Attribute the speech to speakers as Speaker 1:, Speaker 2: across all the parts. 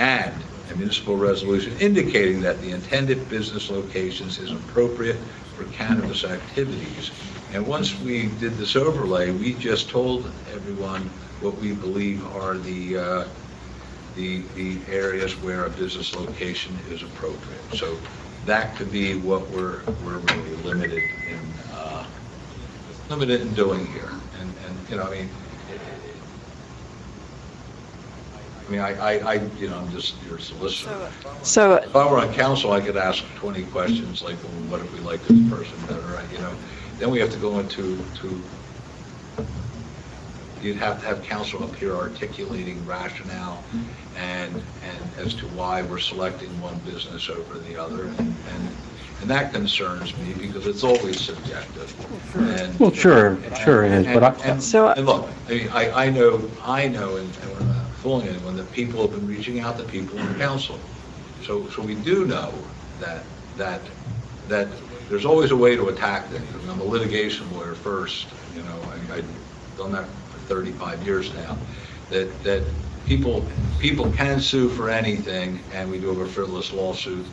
Speaker 1: and a municipal resolution indicating that the intended business locations is appropriate for cannabis activities. And once we did this overlay, we just told everyone what we believe are the, uh, the, the areas where a business location is appropriate. So that could be what we're, we're really limited in, uh, limited in doing here. And, and, you know, I mean, I mean, I, I, I, you know, I'm just your solicitor.
Speaker 2: So,
Speaker 1: If I were on council, I could ask 20 questions, like, well, what if we like this person better, right, you know? Then we have to go into, to, you'd have to have council up here articulating rationale and, and as to why we're selecting one business over the other. And, and and that concerns me because it's always subjective. And-
Speaker 3: Well, sure, sure it is, but
Speaker 1: and-
Speaker 3: I,
Speaker 1: and-
Speaker 2: So-
Speaker 1: And look, I mean, I, I know, I know, and and we're not fooling anyone, that people have been reaching out to people in council. So, so we do know that, that, that there's always a way to attack things. I mean, I'm a litigation lawyer first, you know, I, I've done that for 35 years now, that, that people, people can sue for anything, and we do have a frivolous lawsuit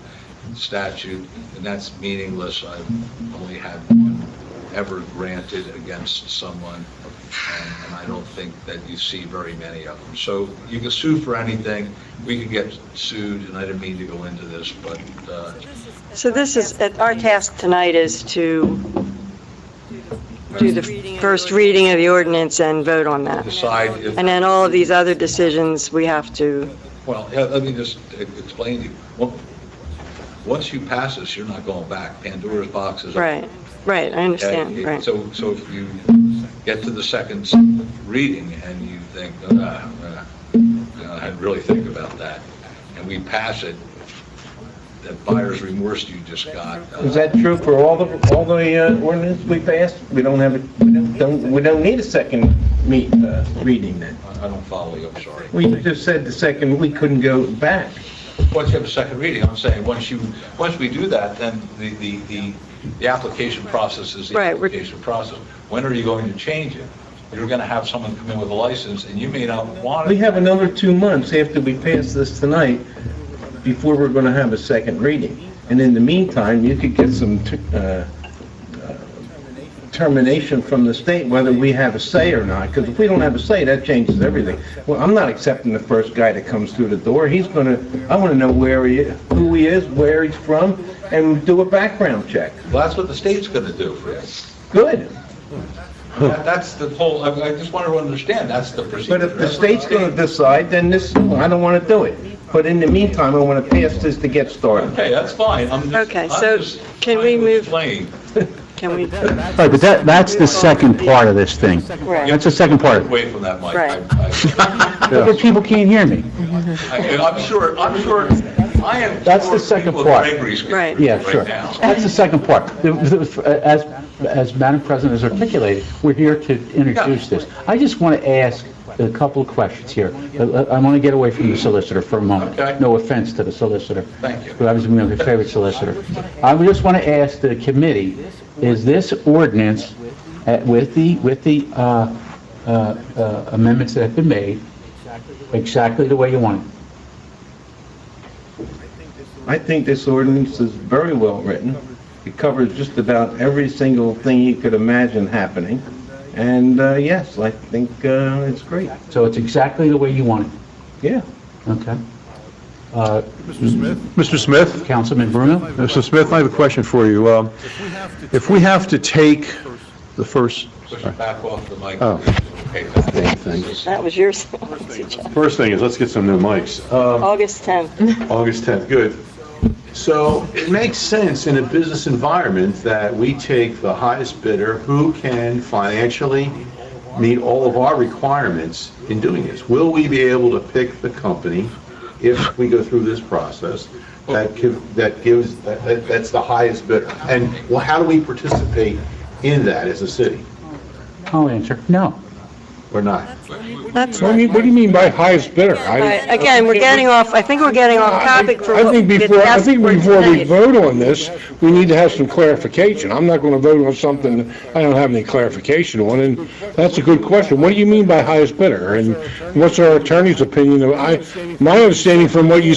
Speaker 1: statute, and that's meaningless. I've only had one ever granted against someone, and- and I don't think that you see very many of them. So you can sue for anything. We could get sued, and I didn't mean to go into this, but uh,
Speaker 2: so this is, uh, our task tonight is to do the first reading of the ordinance and vote on that.
Speaker 1: decide if,
Speaker 2: And then all of these other decisions, we have to,
Speaker 1: well, yeah, let me just e- explain to you. Well, Once you pass this, you're not going back. Pandora's box is. open.
Speaker 2: right, right, I understand,
Speaker 1: Okay,
Speaker 2: right.
Speaker 1: So, so if you get to the second s- reading and you think, "Ah, uh, uh, I really think about that, and we pass it, that buyer's remorse you just got. uh,
Speaker 4: Is that true for all the, all the uh, ordinance we passed? We don't have, a- we don't- don't, we don't need a second meet, uh, reading then?
Speaker 1: I I don't follow you, I'm sorry.
Speaker 4: We just said the second, we couldn't go back.
Speaker 1: Once you have a second reading, I'm saying, once you, once we do that, then the, the, the, the application process is the
Speaker 2: Right, we're-
Speaker 1: application process. When are you going to change it? You're going to have someone come in with a license, and you may not want it.
Speaker 4: We have another two months after we pass this tonight before we're going to have a second reading. And in the meantime, you could get some t- uh, uh, termination from the state whether we have a say or not, because if we don't have a say, that changes everything. Well, I'm not accepting the first guy that comes through the door. He's going to, I want to know where he, who he is, where he's from, and do a background check.
Speaker 1: Well, that's what the state's going to do for you.
Speaker 4: Good.
Speaker 1: That- That's the whole, I I just want to understand, that's the procedure.
Speaker 4: But if the state's going to decide, then this, I don't want to do it. But in the meantime, I want to pass this to get started.
Speaker 1: Okay, that's fine, I'm just.
Speaker 2: Okay,
Speaker 1: I'm
Speaker 2: so
Speaker 1: just
Speaker 2: can we
Speaker 1: trying to
Speaker 2: move-
Speaker 1: explain.
Speaker 2: Can we,
Speaker 3: Right, but that, that's the second part of this thing.
Speaker 2: right,
Speaker 3: That's the second part.
Speaker 1: Away from that, Mike.
Speaker 2: Right.
Speaker 1: I-
Speaker 3: But people can't hear me.
Speaker 1: I- I'm sure, I'm sure, I am.
Speaker 3: That's the
Speaker 1: sure
Speaker 3: second
Speaker 1: people
Speaker 3: part.
Speaker 1: at Gregory's getting
Speaker 2: Right.
Speaker 3: Yeah,
Speaker 1: right
Speaker 3: sure.
Speaker 1: now.
Speaker 3: That's the second part. The- the- As, as Madam President has articulated, we're here to introduce this. I just want to ask a couple of questions here. I- I want to get away from the solicitor for a moment.
Speaker 1: Okay.
Speaker 3: No offense to the solicitor.
Speaker 1: Thank you.
Speaker 3: Who happens to be my favorite solicitor. I would just want to ask the committee, is this ordinance uh, with the, with the uh, uh, uh, amendments that have been made, exactly the way you want it?
Speaker 4: I think this ordinance is very well written. It covers just about every single thing you could imagine happening. And uh, yes, I think uh, it's great.
Speaker 3: So it's exactly the way you want it?
Speaker 4: Yeah.
Speaker 3: Okay. Uh,
Speaker 5: Mr. Smith?
Speaker 3: Councilman Bruno?
Speaker 5: Mr. Smith, I have a question for you. Um, If we have to take the first,
Speaker 1: Push it back off the mic.
Speaker 5: Oh.
Speaker 1: Okay, thank you.
Speaker 2: that was yours,
Speaker 5: first thing is, let's get some new mics.
Speaker 6: Uh, Um,
Speaker 2: August 10th.
Speaker 5: August 10th, good.
Speaker 6: So it makes sense in a business environment that we take the highest bidder who can financially meet all of our requirements in doing this. Will we be able to pick the company if we go through this process that give, that gives, that, that- that's the highest bidder? And well, how do we participate in that as a city
Speaker 3: I'll answer. No.
Speaker 6: or not?
Speaker 2: That's,
Speaker 6: What do you- what do you mean by highest bidder?
Speaker 2: all right, again, we're getting off, I think we're getting off topic for
Speaker 6: I
Speaker 2: what
Speaker 6: think
Speaker 2: we
Speaker 6: before, I
Speaker 2: discussed
Speaker 6: think
Speaker 2: for
Speaker 6: before we
Speaker 2: tonight.
Speaker 6: vote on this, we need to have some clarification. I'm not going to vote on something that I don't have any clarification on, and that's a good question. What do you mean by highest bidder? And what's our attorney's opinion? of- I, my understanding from what you